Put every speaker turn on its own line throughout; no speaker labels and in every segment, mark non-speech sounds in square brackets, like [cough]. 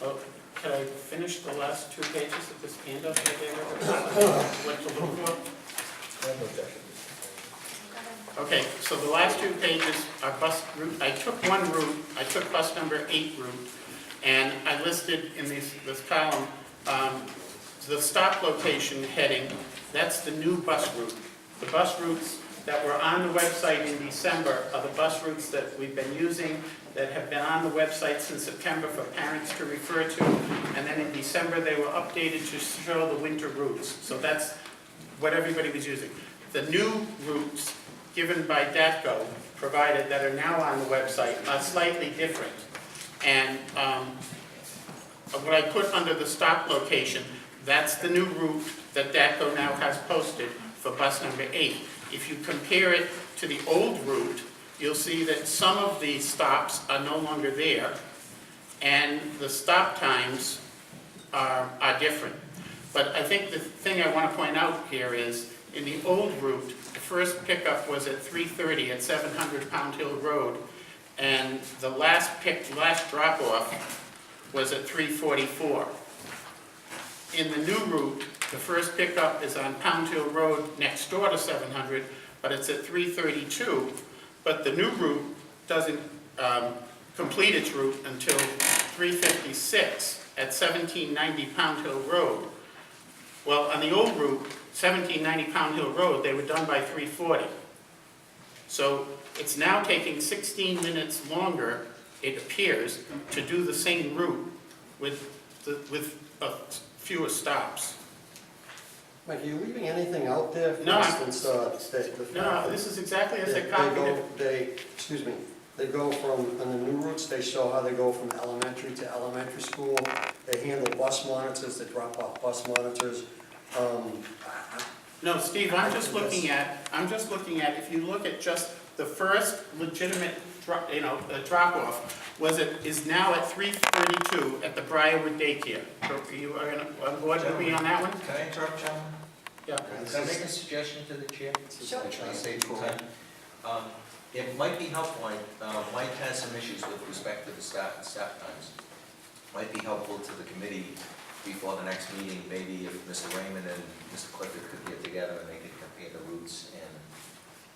Oh, finish the last two pages of this handout that I gave everyone? What to look for? Okay, so the last two pages are bus route, I took one route, I took bus number eight route, and I listed in this, this column, um, the stop location heading, that's the new bus route. The bus routes that were on the website in December are the bus routes that we've been using, that have been on the website since September for parents to refer to, and then in December, they were updated to show the winter routes. So that's what everybody was using. The new routes given by DATCO provided that are now on the website are slightly different. And um, what I put under the stop location, that's the new route that DATCO now has posted for bus number eight. If you compare it to the old route, you'll see that some of these stops are no longer there, and the stop times are, um, are different. But I think the thing I want to point out here is, in the old route, the first pickup was at 3:30 at 700 Pound Hill Road, and the last pick, last drop-off was at 3:44. In the new route, the first pickup is on Pound Hill Road next door to 700, but it's at 3:32. But the new route doesn't um, complete its route until 3:56 at 1790 Pound Hill Road. Well, on the old route, 1790 Pound Hill Road, they were done by 3:40. So it's now taking 16 minutes longer, it appears, to do the same route with, the- with uh, fewer stops.
Mike, are you leaving anything out there? For
No.
instance, uh, the, the fact
No,
that
this is exactly as
they-
I
they
copied it.
go, they, excuse me, they go from, on the new routes, they show how they go from elementary to elementary school. They handle bus monitors, they drop off bus monitors. Um,
No, Steve, I'm just looking at, I'm just looking at, if you look at just the first legitimate, dro- you know, uh, drop-off, was it, is now at 3:32 at the Briarwood daycare. So You are gonna- on board with me on that one?
Can I interrupt, gentlemen?
Yeah.
Can I make a suggestion to the chair?
Sure.
I'm trying to save you time. Um, It might be helpful, I- uh, Mike has some issues with respect to the start and stop times. Might be helpful to the committee before the next meeting, maybe if Mr. Raymond and Mr. Clifford could get together and they could compare the routes and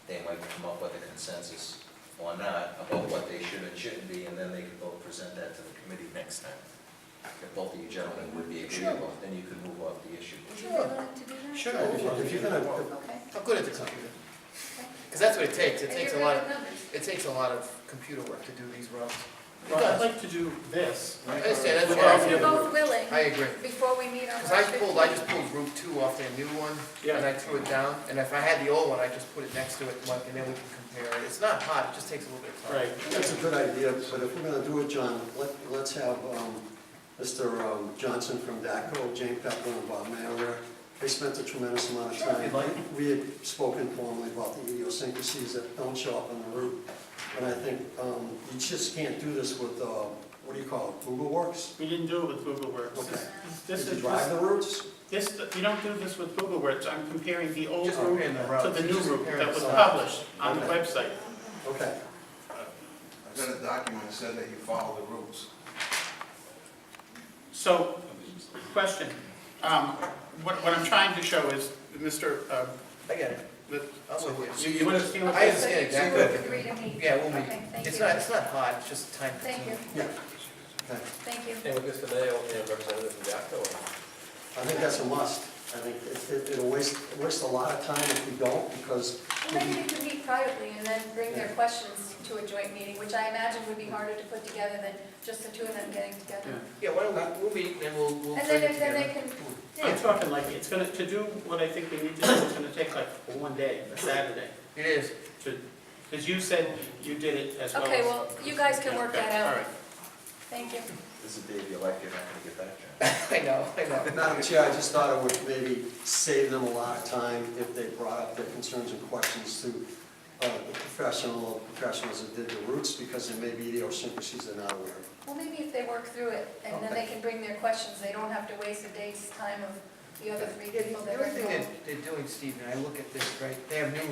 they might come up with a consensus or not about what they should and shouldn't be, and then they could both present that to the committee next time. If both of you gentlemen would be agreeable, then you could move off the issue.
Would you be willing to do that?
Sure.
If you're gonna,
Okay.
I'm good at the computer. Because that's what it takes. It
And
takes a
you're
lot,
good
of
with numbers.
it takes a lot of computer work to do these routes.
Well, I'd like to do this.
I understand, that's
Well,
If
why
you're
yeah.
I-
both willing,
I agree.
before we meet on
Because I
March
pulled, I
15th.
just pulled Route 2 off their new one,
Yeah.
and I threw it down. And if I had the old one, I just put it next to it, like, and then we can compare it. It's not hot, it just takes a little bit of time.
Right.
that's a good idea, but if we're gonna do it, John, let, let's have, um, Mr. um, Johnson from DACO, Jane Pepper and Bob Mayer. They spent a tremendous amount of
Sure, if
time.
you'd like.
We had spoken formally about the idiosyncrasies that don't show up on the route. And I think, um, you just can't do this with, uh, what do you call it, Google Works?
We didn't do it with Google Works.
Okay.
This
Did you
is,
drive the routes?
this, you don't do this with Google Works. I'm comparing the old
Just
route
comparing the
to
routes.
the new
Just
route
comparing
that
the
was
routes.
published on the
Okay.
website.
Okay.
I've got a document that said that you follow the rules.
So, question, um, what, what I'm trying to show is, Mr., um,
I get it.
the-
I'm with you.
you, you understand what
I
this
So
understand exactly.
we'll
what you're
agree
doing.
to meet.
Yeah, we'll meet.
Okay, thank
It's
you.
not, it's not hot, it's just time
Thank you,
consuming.
Yeah. Okay.
thank you.
And with Mr. Mayo, you know, representative from DACO,
I think that's a must. I think it- it, it'll waste, waste a lot of time if we don't, because
Well, Maybe we could meet privately and then bring their
Yeah.
questions to a joint meeting, which I imagine would be harder to put together than just the two of them getting together.
Yeah, why don't we, we'll meet, and then we'll, we'll
And
bring
then,
it
if- then
together.
they can, yeah,
I'm talking like, it's gonna, to do what I think we need to do, it's gonna take like one day, a Saturday,
It is. [laughs]
to, because you said you did it as well as.
okay, well, you guys can work that
All
out,
right.
thank you.
This is the day of your life, you're not gonna get that job.
I know, I know.
Madam Chair, I just thought it would maybe save them a lot of time if they brought up their concerns and questions to uh, the professional, professionals that did the routes, because there may be idiosyncrasies they're not aware of.
Well, maybe if they work through it, and then they can bring their questions, they don't have to waste a day's time of the other three
Yeah,
people
The
that are
other thing
involved.
that they're doing, Steve, and I look at this, right, they have new